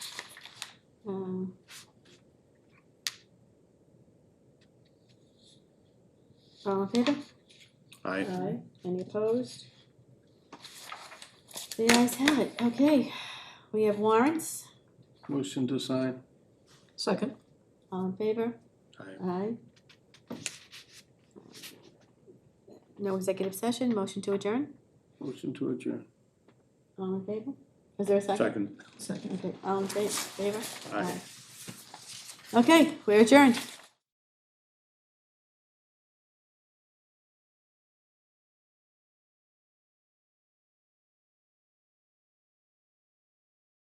Um, All in favor? Aye. Aye. Any opposed? The ayes have it. Okay, we have warrants. Motion to sign. Second. All in favor? Aye. Aye. No executive session, motion to adjourn. Motion to adjourn. All in favor? Is there a second? Second. Second. Okay, all in fa- favor? Aye. Okay, we're adjourned.